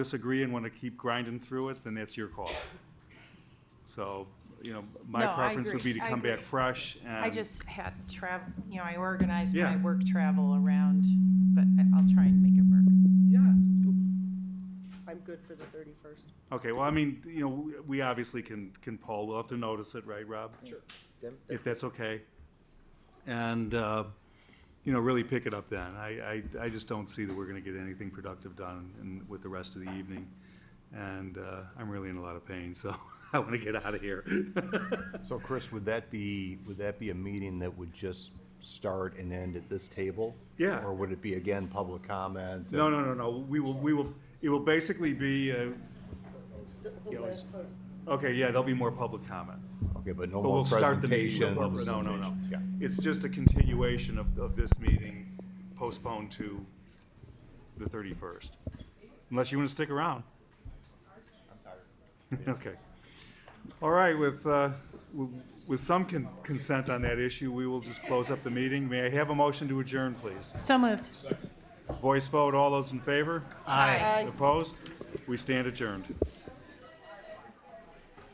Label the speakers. Speaker 1: disagree and want to keep grinding through it, then that's your call. So, you know, my
Speaker 2: No, I
Speaker 1: preference would
Speaker 2: agree.
Speaker 1: be to
Speaker 2: I
Speaker 1: come back
Speaker 2: agree.
Speaker 1: fresh and.
Speaker 2: I just had travel, you know, I organized my
Speaker 1: Um, Yeah.
Speaker 2: work travel around, but I- I'll try and make it work.
Speaker 1: Yeah.
Speaker 3: I'm good for the thirty-first.
Speaker 1: Okay, well, I mean, you know, we- we obviously can, can poll, we'll have to notice it, right, Rob? Sure.
Speaker 4: Then-
Speaker 1: If that's okay. And, uh, you know, really pick it up then. I, I, I just don't see that we're gonna get anything productive done in, with the rest of the evening. And, uh, I'm really in a lot of pain, so I wanna get out of here.
Speaker 4: So Chris, would that be, would that be a meeting that would just start and end at this table?
Speaker 1: Yeah.
Speaker 4: Or would it be again, public comment? and-
Speaker 1: No, no, no, no, we will, we will, it will basically be, uh, okay, yeah, there'll be more public comment.
Speaker 4: Okay, but no
Speaker 1: But we'll
Speaker 4: more
Speaker 1: start the meeting.
Speaker 4: presentation.
Speaker 1: with public- No, no, no.
Speaker 4: Yeah.
Speaker 1: It's just a continuation of, of this meeting postponed to the 31st. Unless you want to stick around. I'm tired. Okay. All right, with, uh, w- with some con- consent on that issue, we will just close up the meeting. May I have a motion to adjourn, please?
Speaker 2: So moved.
Speaker 1: Voice vote, all those in favor?
Speaker 2: Aye.
Speaker 1: Opposed? We stand adjourned.